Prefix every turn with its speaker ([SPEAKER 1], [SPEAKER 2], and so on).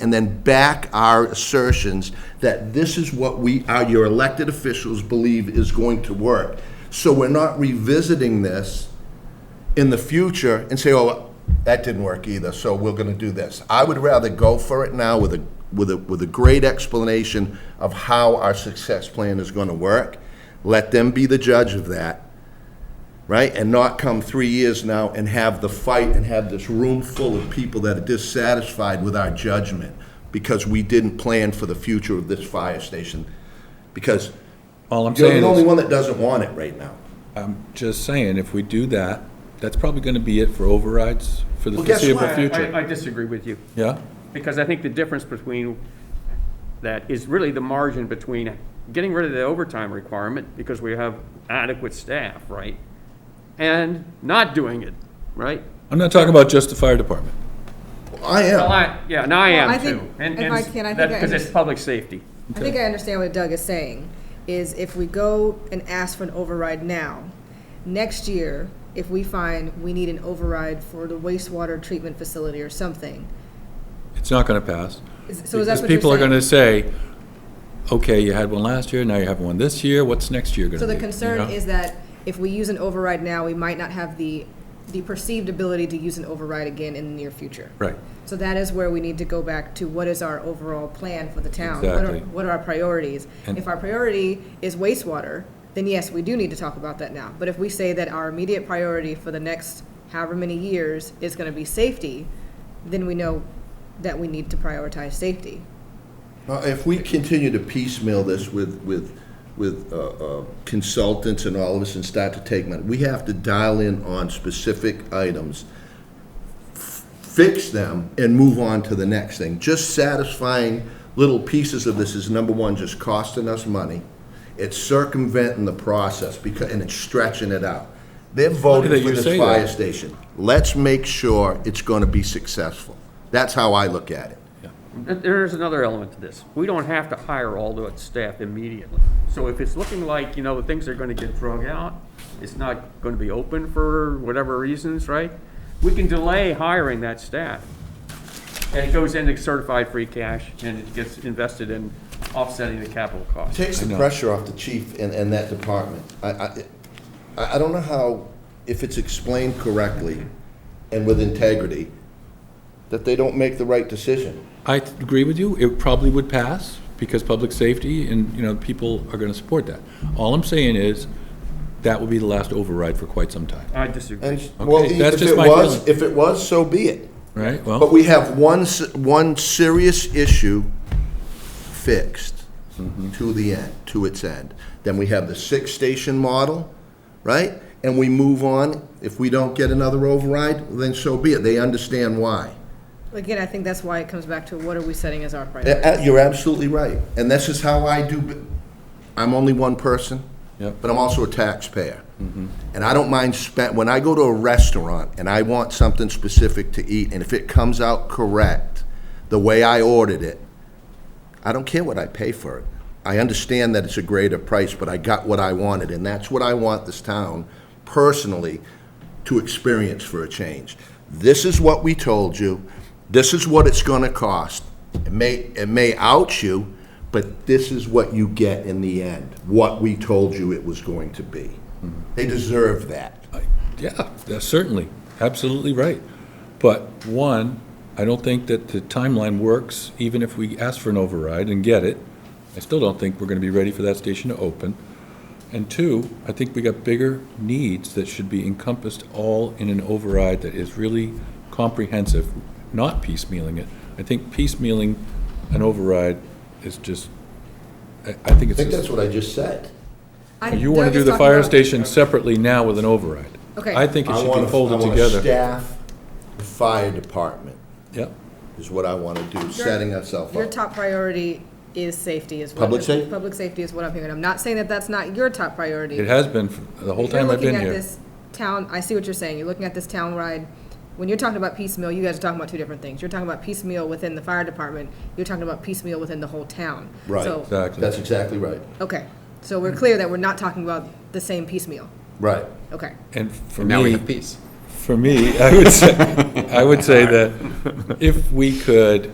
[SPEAKER 1] and then back our assertions that this is what we, our, your elected officials believe is going to work. So we're not revisiting this in the future and say, oh, that didn't work either, so we're gonna do this. I would rather go for it now with a, with a, with a great explanation of how our success plan is gonna work. Let them be the judge of that right? And not come three years now and have the fight and have this room full of people that are dissatisfied with our judgment because we didn't plan for the future of this fire station. Because
[SPEAKER 2] All I'm
[SPEAKER 1] you're
[SPEAKER 2] saying
[SPEAKER 1] the only
[SPEAKER 2] is,
[SPEAKER 1] one that doesn't want it right now.
[SPEAKER 2] I'm just saying, if we do that, that's probably gonna be it for overrides for the
[SPEAKER 1] Well, guess
[SPEAKER 2] foreseeable
[SPEAKER 1] what?
[SPEAKER 2] future.
[SPEAKER 3] I I disagree with you,
[SPEAKER 2] Yeah?
[SPEAKER 3] because I think the difference between that is really the margin between getting rid of the overtime requirement, because we have adequate staff, right? And not doing it, right?
[SPEAKER 2] I'm not talking about just the fire department.
[SPEAKER 1] I
[SPEAKER 3] Well,
[SPEAKER 1] am.
[SPEAKER 3] I, yeah, and I
[SPEAKER 4] I
[SPEAKER 3] am
[SPEAKER 4] think-
[SPEAKER 3] too. and-
[SPEAKER 4] if
[SPEAKER 3] and
[SPEAKER 4] I can, I think
[SPEAKER 3] that-
[SPEAKER 4] I
[SPEAKER 3] Because it's
[SPEAKER 4] understand.
[SPEAKER 3] public safety.
[SPEAKER 4] I think I understand what Doug is saying, is if we go and ask for an override now, next year, if we find we need an override for the wastewater treatment facility or something,
[SPEAKER 2] It's not gonna pass.
[SPEAKER 4] is- so is that what
[SPEAKER 2] Because people are
[SPEAKER 4] you're
[SPEAKER 2] gonna
[SPEAKER 4] saying?
[SPEAKER 2] say, okay, you had one last year, now you have one this year, what's next year gonna be?
[SPEAKER 4] So the
[SPEAKER 2] You
[SPEAKER 4] concern
[SPEAKER 2] know?
[SPEAKER 4] is that if we use an override now, we might not have the, the perceived ability to use an override again in the near future.
[SPEAKER 2] Right.
[SPEAKER 4] So that is where we need to go back to what is our overall plan for the town? What are-
[SPEAKER 2] Exactly.
[SPEAKER 4] What are our priorities?
[SPEAKER 2] And-
[SPEAKER 4] If our priority is wastewater, then yes, we do need to talk about that now. But if we say that our immediate priority for the next however many years is gonna be safety, then we know that we need to prioritize safety.
[SPEAKER 1] Now, Uh, If we continue to piecemeal this with, with, with uh, uh, consultants and all of us and start to take money, we have to dial in on specific items, f- fix them, and move on to the next thing. Just satisfying little pieces of this is, number one, just costing us money. It's circumventing the process because, and it's stretching it out. They're
[SPEAKER 2] that
[SPEAKER 1] voting for
[SPEAKER 2] you
[SPEAKER 1] this
[SPEAKER 2] say
[SPEAKER 1] fire
[SPEAKER 2] that.
[SPEAKER 1] station. Let's make sure it's going to be successful. That's how I look at it.
[SPEAKER 3] Th- There's another element to this. We don't have to hire all the staff immediately. So if it's looking like, you know, things are gonna get drug out, it's not gonna be open for whatever reasons, right? We can delay hiring that staff. And it goes into certified free cash and it gets invested in offsetting the capital cost.
[SPEAKER 1] Takes the pressure off the chief and, and that department. I, I, I I don't know how, if it's explained correctly and with integrity, that they don't make the right decision.
[SPEAKER 2] I th- agree with you. It probably would pass because public safety and, you know, people are going to support that. All I'm saying is that will be the last override for quite some time,
[SPEAKER 3] I disagree.
[SPEAKER 1] And, well,
[SPEAKER 2] Okay, that's
[SPEAKER 1] if
[SPEAKER 2] just
[SPEAKER 1] it
[SPEAKER 2] my
[SPEAKER 1] was,
[SPEAKER 2] feeling.
[SPEAKER 1] if it was, so be it.
[SPEAKER 2] right?
[SPEAKER 1] But
[SPEAKER 2] Well,
[SPEAKER 1] we have one, s- one serious issue fixed
[SPEAKER 2] Mm-hmm.
[SPEAKER 1] to the end, to its end. Then we have the six-station model, right? And we move on. If we don't get another override, then so be it. They understand why.
[SPEAKER 4] Again, I think that's why it comes back to what are we setting as our priority?
[SPEAKER 1] A- a- You're absolutely right. And this is how I do, bu- I'm only one person,
[SPEAKER 2] Yep.
[SPEAKER 1] but I'm also a taxpayer. And I don't mind spent, when I go to a restaurant and I want something specific to eat, and if it comes out correct, the way I ordered it, I don't care what I pay for it. I understand that it's a greater price, but I got what I wanted, and that's what I want this town personally to experience for a change. This is what we told you. This is what it's going to cost. It may it may out you, but this is what you get in the end. What we told you it was going to be. They deserve that.
[SPEAKER 2] yeah, that's certainly, absolutely right. But one, I don't think that the timeline works, even if we ask for an override and get it. I still don't think we're going to be ready for that station to open. And two, I think we got bigger needs that should be encompassed all in an override that is really comprehensive, not piecemealing it. I think piecemealing an override is just, I, I think
[SPEAKER 1] I
[SPEAKER 2] it's
[SPEAKER 1] think that's
[SPEAKER 2] just,
[SPEAKER 1] what I just said.
[SPEAKER 4] I-
[SPEAKER 2] you want to
[SPEAKER 4] Doug
[SPEAKER 2] do
[SPEAKER 4] is
[SPEAKER 2] the
[SPEAKER 4] talking
[SPEAKER 2] fire
[SPEAKER 4] about-
[SPEAKER 2] station separately now with an override.
[SPEAKER 4] Okay.
[SPEAKER 2] I think it
[SPEAKER 1] I
[SPEAKER 2] should
[SPEAKER 1] want
[SPEAKER 2] be
[SPEAKER 1] to
[SPEAKER 2] folded
[SPEAKER 1] I want to
[SPEAKER 2] together.
[SPEAKER 1] staff the fire department
[SPEAKER 2] Yep.
[SPEAKER 1] is what I want to do, setting ourselves
[SPEAKER 4] Your
[SPEAKER 1] up.
[SPEAKER 4] top priority is safety is what.
[SPEAKER 1] Public safety?
[SPEAKER 4] Public safety is what I'm hearing. I'm not saying that that's not your top priority.
[SPEAKER 2] It has been for the whole
[SPEAKER 4] If you're
[SPEAKER 2] time I've
[SPEAKER 4] looking
[SPEAKER 2] been
[SPEAKER 4] at
[SPEAKER 2] here.
[SPEAKER 4] this Town, I see what you're saying. You're looking at this town ride. When you're talking about piecemeal, you guys are talking about two different things. You're talking about piecemeal within the fire department. You're talking about piecemeal within the whole town.
[SPEAKER 1] Right.
[SPEAKER 4] So,
[SPEAKER 2] Exactly.
[SPEAKER 1] That's exactly right.
[SPEAKER 4] okay. So we're clear that we're not talking about the same piecemeal.
[SPEAKER 1] Right.
[SPEAKER 4] Okay.
[SPEAKER 2] And for
[SPEAKER 5] And now we
[SPEAKER 2] me,
[SPEAKER 5] have peace.
[SPEAKER 2] for me, I would say, I would say that if we could